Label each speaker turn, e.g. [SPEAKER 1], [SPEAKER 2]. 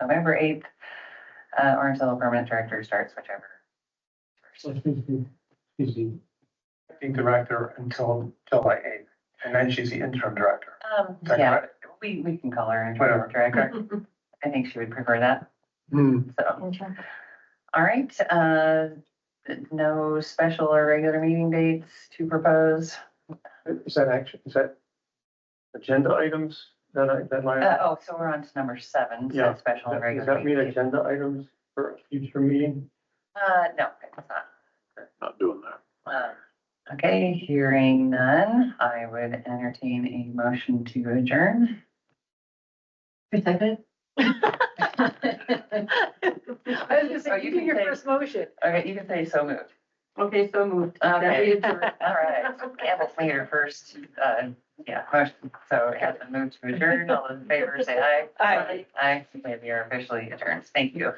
[SPEAKER 1] November eighth, uh, or until the permanent director starts, whichever.
[SPEAKER 2] So she's the, she's the
[SPEAKER 3] acting director until July eighth, and then she's the interim director.
[SPEAKER 1] Um,
[SPEAKER 3] Is that
[SPEAKER 1] yeah,
[SPEAKER 3] correct?
[SPEAKER 1] we, we can call her
[SPEAKER 3] Whatever.
[SPEAKER 1] interim director. I think she would prefer that, so. All right, uh, no special or regular meeting dates to propose.
[SPEAKER 3] Is that action, is that agenda items that I, that
[SPEAKER 1] Uh,
[SPEAKER 3] my,
[SPEAKER 1] oh, so we're on to number seven,
[SPEAKER 3] Yeah.
[SPEAKER 1] so special and
[SPEAKER 3] does
[SPEAKER 1] regular.
[SPEAKER 3] that mean
[SPEAKER 1] meeting dates.
[SPEAKER 3] agenda items for a future meeting?
[SPEAKER 1] Uh, no, it's not.
[SPEAKER 4] not doing that.
[SPEAKER 1] Um, Okay, hearing none, I would entertain a motion to adjourn.
[SPEAKER 5] I was just
[SPEAKER 1] Oh, you
[SPEAKER 5] saying, you did
[SPEAKER 1] can
[SPEAKER 5] your
[SPEAKER 1] say-
[SPEAKER 5] first motion.
[SPEAKER 1] Okay, you can say so moved.
[SPEAKER 5] Okay, so moved.
[SPEAKER 1] Okay, all right. Campbell's made her first, uh, yeah, motion, so it has been moved to adjourn. All those in favor, say aye.
[SPEAKER 5] Aye.
[SPEAKER 1] Aye, we are officially adjourned. Thank you.